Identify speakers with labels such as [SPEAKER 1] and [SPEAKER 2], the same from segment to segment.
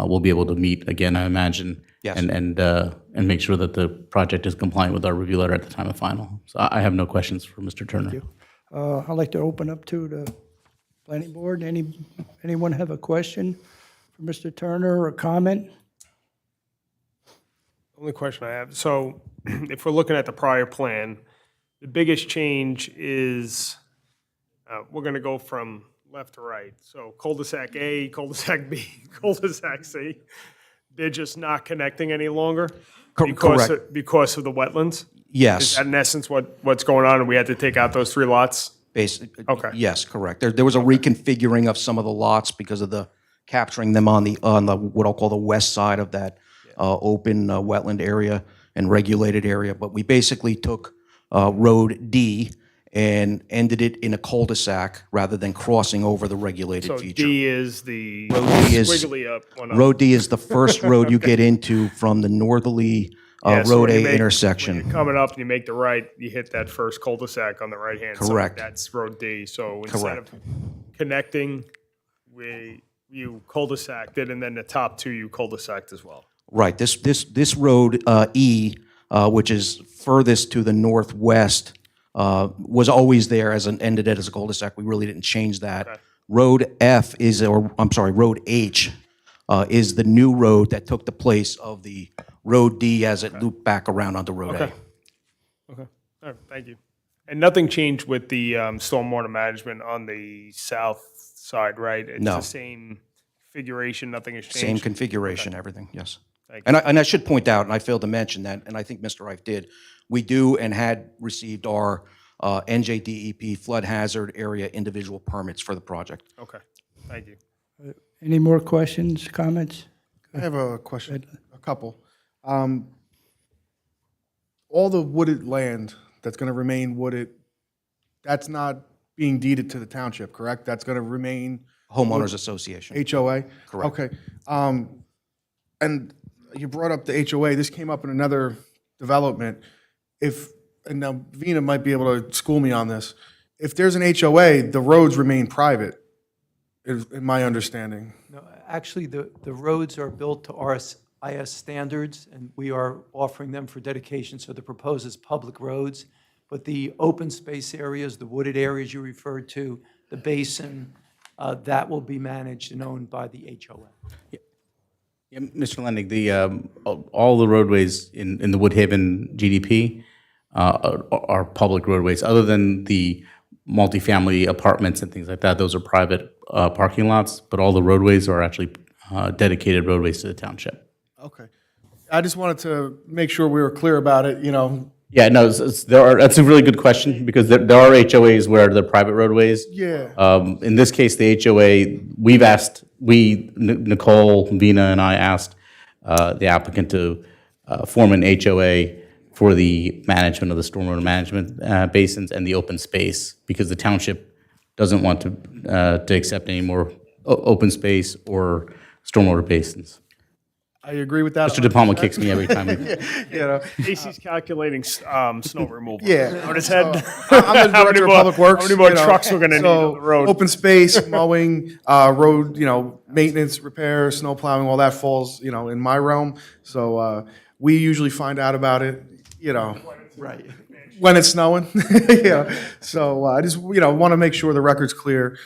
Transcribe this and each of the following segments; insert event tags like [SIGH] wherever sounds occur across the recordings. [SPEAKER 1] uh, we'll be able to meet again, I imagine.
[SPEAKER 2] Yes.
[SPEAKER 1] And, and, uh, and make sure that the project is compliant with our review letter at the time of final. So I I have no questions for Mr. Turner.
[SPEAKER 3] Uh, I'd like to open up to the planning board. Any, anyone have a question for Mr. Turner or a comment?
[SPEAKER 4] Only question I have, so [CLEARS THROAT] if we're looking at the prior plan, the biggest change is, uh, we're gonna go from left to right. So cul-de-sac A, [LAUGHS] cul-de-sac B, cul-de-sac C, they're just not connecting any longer?
[SPEAKER 2] Cor-
[SPEAKER 4] because
[SPEAKER 2] correct.
[SPEAKER 4] of- Because of the wetlands? Is
[SPEAKER 2] Yes.
[SPEAKER 4] that in essence what, what's going on, and we had to take out those three lots?
[SPEAKER 2] Basically,
[SPEAKER 4] Okay.
[SPEAKER 2] yes, correct. There, there was a reconfiguring of some of the lots because of the capturing them on the, on the, what I'll call the west side of that uh, open uh, wetland area and regulated area. But we basically took uh, Road D and ended it in a cul-de-sac rather than crossing over the regulated
[SPEAKER 4] So
[SPEAKER 2] feature.
[SPEAKER 4] D is the
[SPEAKER 2] D is-
[SPEAKER 4] squiggly up one up.
[SPEAKER 2] Road D is the first
[SPEAKER 4] [LAUGHS]
[SPEAKER 2] road you get into from the northerly uh,
[SPEAKER 4] Yeah, so
[SPEAKER 2] Road
[SPEAKER 4] when you
[SPEAKER 2] A
[SPEAKER 4] make-
[SPEAKER 2] intersection.
[SPEAKER 4] When you're coming up and you make the right, you hit that first cul-de-sac on the right-hand side.
[SPEAKER 2] Correct.
[SPEAKER 4] That's Road D. So instead of connecting, we, you cul-de-saced it, and then the top two you cul-de-saced as well.
[SPEAKER 2] Right, this, this, this road, uh, E, uh, which is furthest to the northwest, uh, was always there as an, ended it as a cul-de-sac, we really didn't change that. Road F is, or, I'm sorry, Road H, uh, is the new road that took the place of the Road D as it looped back around onto Road A.
[SPEAKER 4] All right, thank you. And nothing changed with the um, stormwater management on the south side, right? It's
[SPEAKER 2] No.
[SPEAKER 4] the same configuration, nothing has
[SPEAKER 2] Same
[SPEAKER 4] changed?
[SPEAKER 2] configuration, everything, yes.
[SPEAKER 4] Thank
[SPEAKER 2] And I, and I should point out, and I failed to mention that, and I think Mr. Reif did, we do and had received our uh, NJDEP flood hazard area individual permits for the project.
[SPEAKER 4] Okay, thank you.
[SPEAKER 3] Any more questions, comments?
[SPEAKER 5] I have a question, a couple. Um, All the wooded land that's going to remain wooded, that's not being deeded to the township, correct? That's going to remain
[SPEAKER 2] Homeowners Association.
[SPEAKER 5] HOA? Correct. Okay. Um, And you brought up the HOA, this came up in another development. If, and now Vina might be able to school me on this, if there's an HOA, the roads remain private, is in my understanding.
[SPEAKER 6] Actually, the, the roads are built to RSIS standards, and we are offering them for dedication, so the proposed is public roads. But the open space areas, the wooded areas you referred to, the basin, uh, that will be managed and owned by the HOA.
[SPEAKER 1] Yeah, Mr. Lendig, the, um, all- all the roadways in, in the Woodhaven GDP uh, are, are public roadways, other than the multifamily apartments and things like that. Those are private uh, parking lots, but all the roadways are actually uh, dedicated roadways to the township.
[SPEAKER 5] Okay. I just wanted to make sure we were clear about it, you know,
[SPEAKER 1] Yeah, no, it's- it's- there are, that's a really good question, because there, there are HOAs where they're private roadways.
[SPEAKER 5] Yeah.
[SPEAKER 1] Um, in this case, the HOA, we've asked, we, N- Nicole, Vina, and I asked, uh, the applicant to, uh, form an HOA for the management of the stormwater management, uh, basins and the open space, because the township doesn't want to, uh, to accept any more o- open space or stormwater basins.
[SPEAKER 5] I agree with that.
[SPEAKER 1] Mr. De Palma kicks me every time. we-
[SPEAKER 5] You know,
[SPEAKER 4] Casey's calculating s- um, snow removal.
[SPEAKER 5] Yeah.
[SPEAKER 4] On his head. [LAUGHS]
[SPEAKER 5] I'm the
[SPEAKER 4] How many
[SPEAKER 5] director of
[SPEAKER 4] more-
[SPEAKER 5] public works.
[SPEAKER 4] How many more
[SPEAKER 5] you know,
[SPEAKER 4] trucks we're gonna need on
[SPEAKER 5] so
[SPEAKER 4] the road?
[SPEAKER 5] Open space, mowing, uh, road, you know, maintenance, repair, snow plowing, all that falls, you know, in my realm. So, uh, we usually find out about it, you know,
[SPEAKER 6] Right.
[SPEAKER 5] when it's snowing. [LAUGHS] Yeah. So uh, I just, you know, want to make sure the record's clear.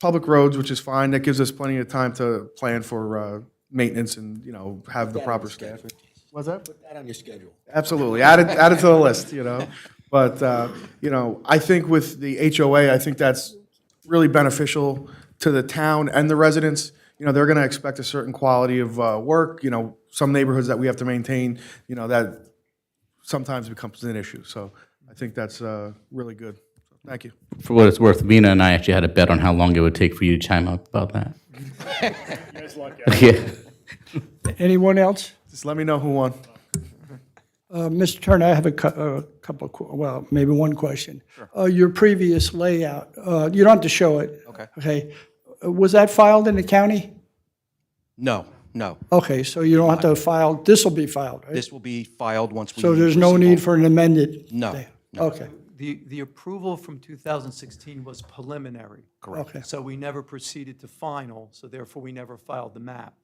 [SPEAKER 5] Public roads, which is fine. That gives us plenty of time to plan for, uh, maintenance and, you know, have the proper staffing. What's that?
[SPEAKER 7] That on your schedule.
[SPEAKER 5] Absolutely. Add it, add it to the list, you know? But, uh, you know, I think with the HOA, I think that's really beneficial to the town and the residents. You know, they're going to expect a certain quality of uh, work, you know, some neighborhoods that we have to maintain, you know, that sometimes becomes an issue. So I think that's uh, really good. Thank you.
[SPEAKER 1] For what it's worth, Vina and I actually had a bet on how long it would take for you to chime up about that.
[SPEAKER 4] [LAUGHS] You guys lucky.
[SPEAKER 1] [LAUGHS] Yeah.
[SPEAKER 3] Anyone else?
[SPEAKER 5] Just let me know who won.
[SPEAKER 3] Uh, Mr. Turner, I have a cou- a couple, of que- well, maybe one question. Uh, Your previous layout, uh, you don't have to show it. Okay. Okay. Uh, Was that filed in the county?
[SPEAKER 2] No, no.
[SPEAKER 3] Okay, so you don't have to file, this will be filed, right?
[SPEAKER 2] This will be filed once we.
[SPEAKER 3] So there's no need for an amended?
[SPEAKER 2] No,
[SPEAKER 3] thing? Okay,
[SPEAKER 6] The, the approval from 2016 was preliminary.
[SPEAKER 3] okay.
[SPEAKER 6] So we never proceeded to final, so therefore we never filed the map.